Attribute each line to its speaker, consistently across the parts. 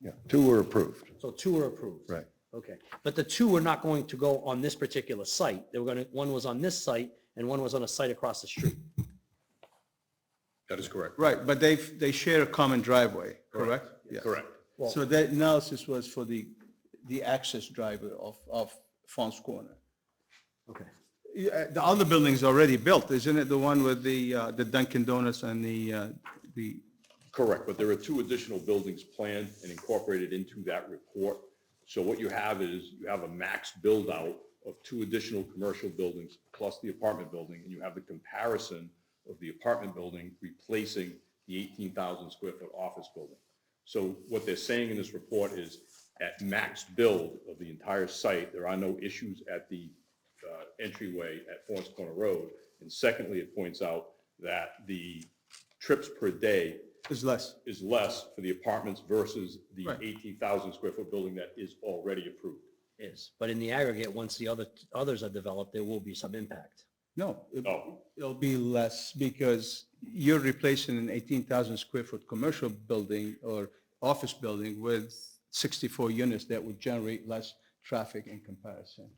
Speaker 1: Yeah, two were approved.
Speaker 2: So two are approved?
Speaker 1: Right.
Speaker 2: Okay, but the two were not going to go on this particular site. They were going to, one was on this site and one was on a site across the street.
Speaker 3: That is correct.
Speaker 4: Right, but they, they share a common driveway, correct? Yeah.
Speaker 3: Correct.
Speaker 4: So that analysis was for the, the access driver of, of Fons Corner.
Speaker 2: Okay.
Speaker 4: Yeah, The other building's already built, isn't it? The one with the, uh, the Dunkin' Donuts and the, uh, the,
Speaker 3: Correct, but there are two additional buildings planned and incorporated into that report. So what you have is you have a max build-out of two additional commercial buildings plus the apartment building, and you have the comparison of the apartment building replacing the 18,000 square foot office building. So what they're saying in this report is at max build of the entire site, there are no issues at the uh, entryway at Forest Corner Road. And secondly, it points out that the trips per day
Speaker 4: is less.
Speaker 3: is less for the apartments versus the
Speaker 4: Right.
Speaker 3: 18,000 square foot building that is already approved.
Speaker 2: Is, but in the aggregate, once the other, others are developed, there will be some impact.
Speaker 4: No, it-
Speaker 3: Oh.
Speaker 4: it'll be less because you're replacing an 18,000 square foot commercial building or office building with 64 units that would generate less traffic in comparison.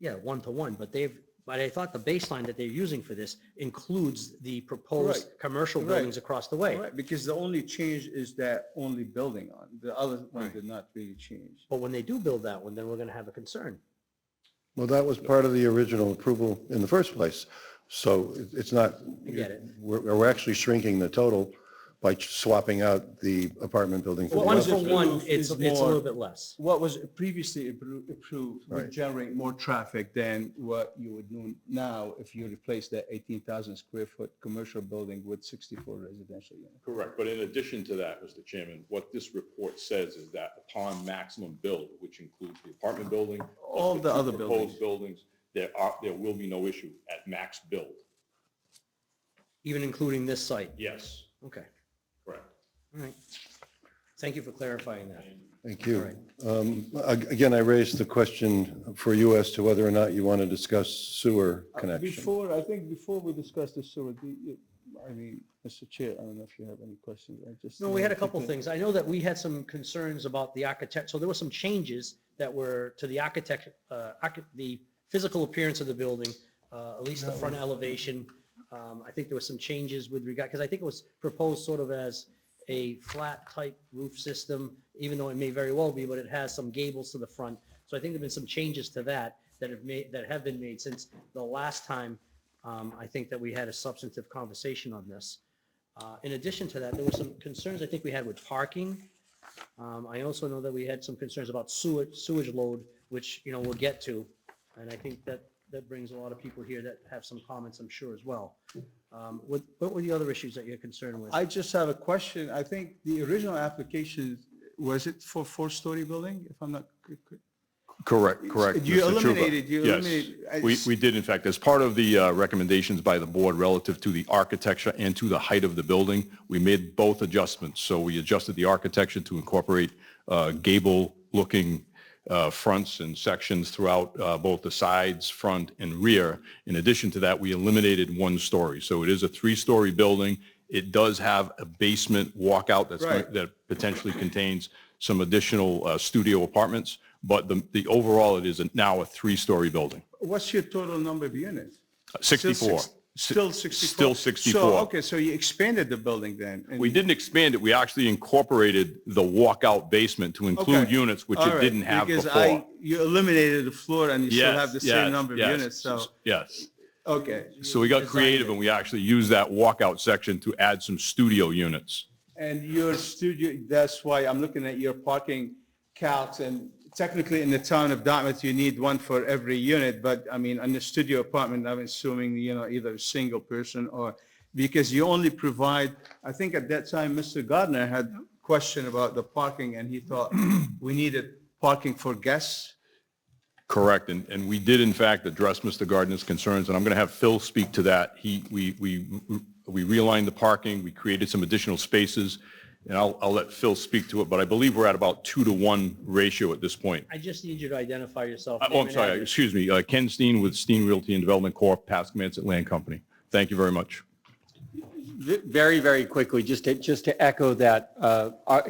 Speaker 2: Yeah, one to one, but they've, but I thought the baseline that they're using for this includes the proposed
Speaker 4: Right.
Speaker 2: commercial
Speaker 4: Right.
Speaker 2: buildings across the way.
Speaker 4: Right, because the only change is that only building on, the other one did not really change.
Speaker 2: But when they do build that one, then we're going to have a concern.
Speaker 1: Well, that was part of the original approval in the first place. So it- it's not.
Speaker 2: I get it.
Speaker 1: We're, we're actually shrinking the total by swapping out the apartment building for the
Speaker 4: Well,
Speaker 2: One
Speaker 4: one's
Speaker 1: office.
Speaker 2: for
Speaker 4: just
Speaker 2: one,
Speaker 4: approved
Speaker 2: it's, it's
Speaker 4: is
Speaker 2: a little
Speaker 4: more-
Speaker 2: bit less.
Speaker 4: What was previously appro- approved would
Speaker 1: Right.
Speaker 4: generate more traffic than what you would do now if you replace that 18,000 square foot commercial building with 64 residential units.
Speaker 3: Correct. But in addition to that, Mr. Chairman, what this report says is that upon maximum build, which includes the apartment building. plus
Speaker 4: All the
Speaker 3: two
Speaker 4: other
Speaker 3: Proposed buildings, there are, there will be no issue at max build.
Speaker 2: Even including this site.
Speaker 3: Yes,
Speaker 2: Okay,
Speaker 3: correct.
Speaker 2: all right. Thank you for clarifying that.
Speaker 1: Thank you. Um, ag- Again, I raised the question for you as to whether or not you want to discuss sewer connection.
Speaker 4: Before, I think before we discuss this, sewer, do you- I mean, Mr. Chair, I don't know if you have any questions, I just.
Speaker 2: No, we had a couple things. I know that we had some concerns about the architect, so there were some changes that were to the architect, uh, archi- the physical appearance of the building, uh, at least the front elevation. Um, I think there were some changes with regard, because I think it was proposed sort of as a flat type roof system, even though it may very well be, but it has some gables to the front. So I think there've been some changes to that that have made, that have been made since the last time, um, I think that we had a substantive conversation on this. Uh, In addition to that, there were some concerns I think we had with parking. Um, I also know that we had some concerns about sewage, sewage load, which, you know, we'll get to. And I think that, that brings a lot of people here that have some comments, I'm sure, as well. Um, What, what were the other issues that you're concerned with?
Speaker 4: I just have a question, I think the original application, was it for four-story building, if I'm not? c- c-
Speaker 3: Correct, correct.
Speaker 4: You
Speaker 3: Mr. Chuba.
Speaker 4: eliminated- you
Speaker 3: Yes.
Speaker 4: eliminated- I-
Speaker 3: We, we did, in fact, as part of the uh, recommendations by the board relative to the architecture and to the height of the building, we made both adjustments. So we adjusted the architecture to incorporate uh, gable-looking uh, fronts and sections throughout uh, both the sides, front, and rear. In addition to that, we eliminated one story. So it is a three-story building. It does have a basement walkout that's,
Speaker 4: Right.
Speaker 3: that potentially contains some additional uh, studio apartments, but the, the overall, it is a- now a three-story building,
Speaker 4: What's your total number of units?
Speaker 3: Uh,
Speaker 4: Still
Speaker 3: 64.
Speaker 4: six- Still 64? So,
Speaker 3: Still 64.
Speaker 4: okay, so you expanded the building then? and-
Speaker 3: We didn't expand it, we actually incorporated the walkout basement to include
Speaker 4: Okay.
Speaker 3: units, which
Speaker 4: All
Speaker 3: it
Speaker 4: right,
Speaker 3: didn't have
Speaker 4: because
Speaker 3: before.
Speaker 4: I- You eliminated the floor and you still
Speaker 3: Yes,
Speaker 4: have the
Speaker 3: yes,
Speaker 4: same number of
Speaker 3: yes.
Speaker 4: units, so,
Speaker 3: Yes,
Speaker 4: okay.
Speaker 3: so we got creative and we actually used that walkout section to add some studio units.
Speaker 4: And your studio, that's why I'm looking at your parking counts and technically in the town of Dartmouth, you need one for every unit, but I mean, on the studio apartment, I'm assuming, you know, either a single person or, because you only provide, I think at that time, Mr. Gardner had a question about the parking and he thought we needed parking for guests.
Speaker 3: Correct, and, and we did in fact address Mr. Gardner's concerns, and I'm going to have Phil speak to that. He, we, we, we realigned the parking, we created some additional spaces, and I'll, I'll let Phil speak to it, but I believe we're at about two to one ratio at this point.
Speaker 2: I just need you to identify yourself.
Speaker 3: Uh,
Speaker 2: name
Speaker 3: Oh, I'm
Speaker 2: and
Speaker 3: sorry,
Speaker 2: address.
Speaker 3: excuse me, uh, Ken Steen with Steen Realty and Development Corp., Pascagoula Land Company. Thank you very much.
Speaker 5: Ve- Very, very quickly, just to, just to echo that, uh, our-